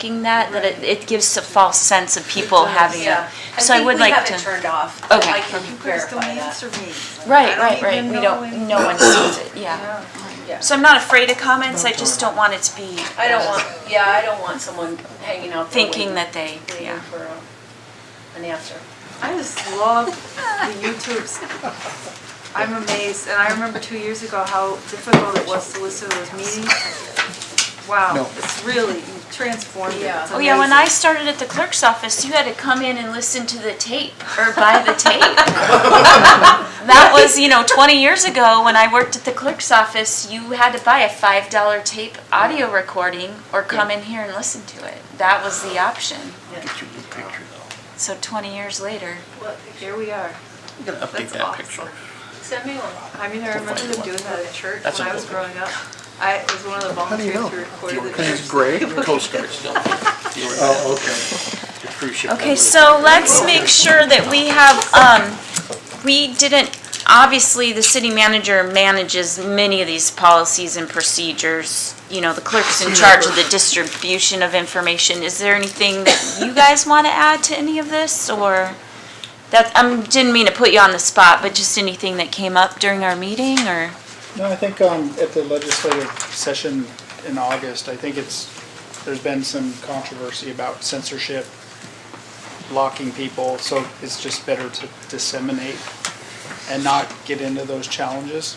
making that, that it, it gives a false sense of people having Yeah. a, so I would like think we have it to. turned off. but Okay. I can verify that. me. Right, right, right, we don't, no one sees it, yeah. Yeah. So I'm not afraid of comments, I just don't want it to be. I don't want, yeah, I don't want someone hanging out there Thinking waiting- that they, waiting yeah. for um, an answer. I just love the YouTubes. I'm amazed, and I remember two years ago how difficult it was to listen to those meetings. Wow, it's really transformed it. Yeah. It's Oh yeah, when amazing. I started at the clerk's office, you had to come in and listen to the tape or buy the tape. That was, you know, twenty years ago when I worked at the clerk's office, you had to buy a five dollar tape audio recording or come in here and listen to it. That was the option. Get you a good picture though. So twenty years later, Well, Here we are. I'm gonna update That's that awesome. picture. Send me one. I mean, I remember them doing that at church That's when I an was old growing up. I it was one of the volunteers who recorded the church. Gray? Coast Guard still. Oh, okay. The cruise ship that Okay, was- so let's make sure that we have, um, we didn't, obviously, the city manager manages many of these policies and procedures. You know, the clerk's in charge of the distribution of information. Is there anything that you guys want to add to any of this, or? That, I didn't mean to put you on the spot, but just anything that came up during our meeting, or? No, I think um, at the legislative session in August, I think it's, there's been some controversy about censorship, blocking people, so it's just better to disseminate and not get into those challenges.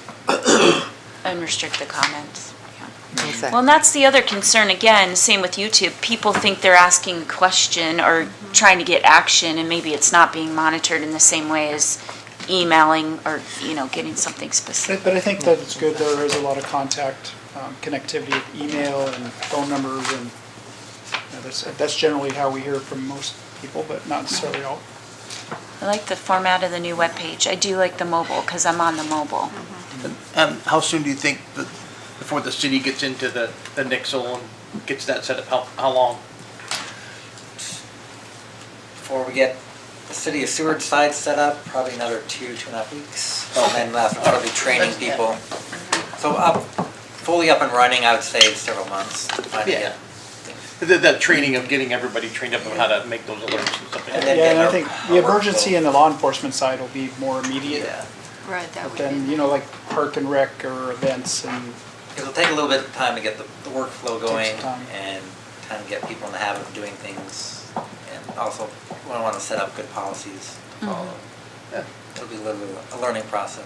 and restrict the comments. yeah. Well, and that's the other concern, again, same with YouTube, people think they're asking a question or trying to get action, and maybe it's not being monitored in the same way as emailing or, you know, getting something specific. But but I think that it's good, there is a lot of contact, um, connectivity of email and phone numbers, and you know, that's, that's generally how we hear from most people, but not necessarily all. I like the format of the new webpage, I do like the mobile, because I'm on the mobile. Um, how soon do you think that, before the city gets into the, the Nixle and gets that set up, how, how long? Before we get the city of Seward side set up, probably another two, two and a half weeks. And then that's probably training people. So up, fully up and running, I would say several months. to finally Yeah. get- The, the training of getting everybody trained up on how to make those alerts and stuff like And that. then Yeah, and I get think our- the our emergency workflow. and the law enforcement side will be more immediate. Yeah, Right, that But would be. then, you know, like park and rec or events and, it'll take a little bit of time to get the, the some workflow going time. and time to get people in the habit of doing things. And also, we want to set up good policies to follow. Yeah. It'll be a little, bit of a learning process.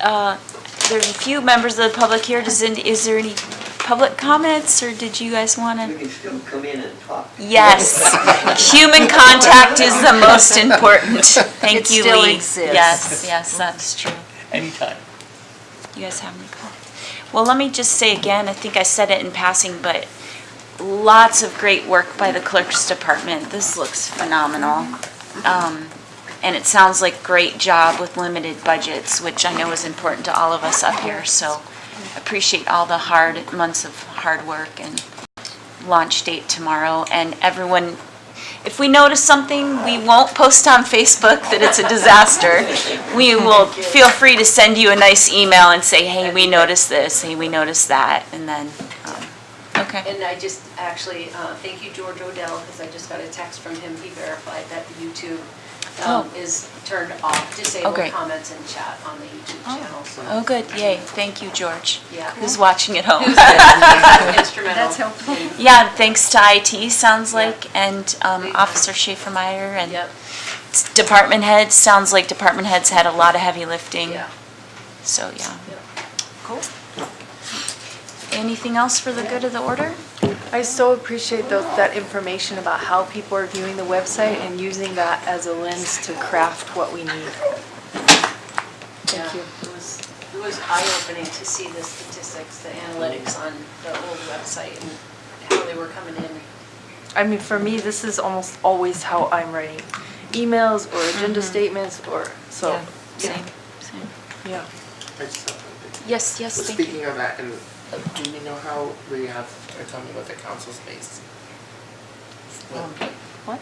Uh, There's a few members of the public here, does, any- is there any public comments, or did you guys want to? You can still come in and talk. Yes, human contact is the most important. Thank It you, Lee. still exists. Yes, yes, that's true. Anytime. You guys have any comments? Well, let me just say again, I think I said it in passing, but lots of great work by the clerk's department. This looks phenomenal. Um, And it sounds like great job with limited budgets, which I know is important to all of us up here. So appreciate all the hard, months of hard work and launch date tomorrow. And everyone, if we notice something, we won't post on Facebook that it's a disaster. We will feel free to send you a nice email and say, hey, we noticed this, hey, we noticed that, and then, um, okay. And I just, actually, uh, thank you, George Odell, because I just got a text from him. He verified that the YouTube um, is turned off, Oh, disabled great. comments and chat on the YouTube channel, so. Oh, good, yay, thank you, George, Yeah. who's watching at home. Instrumental. That's helpful. in- Yeah, thanks to IT, sounds Yeah. like, and um, Great. Officer Schaefer Meyer and Yep, department heads, sounds like department heads had a lot of heavy lifting. yeah. So, yeah. Yep. Cool. Anything else for the good of the order? I so appreciate tho- that information about how people are viewing the website and using that as a lens to craft what we need. Thank Yeah, you. It was, it was eye-opening to see the statistics, the analytics on the old website and how they were coming in. I mean, for me, this is almost always how I'm writing emails or agenda statements or, so, Yeah, yeah. Same, same. yeah. I just have one thing. Yes, yes, thank you. Speaking of that, and uh, do we know how we have, are coming with the council space? Um, Well, What?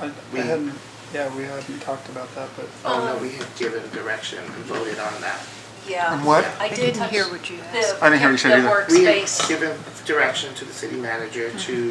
I I We- hadn't, yeah, we hadn't talked about that, but um, Oh, no, we had given direction and voted on that. Um, yeah. What? I did touch. didn't hear what you the- asked. I didn't hear what you said the either. We workspace. had given direction to the city manager to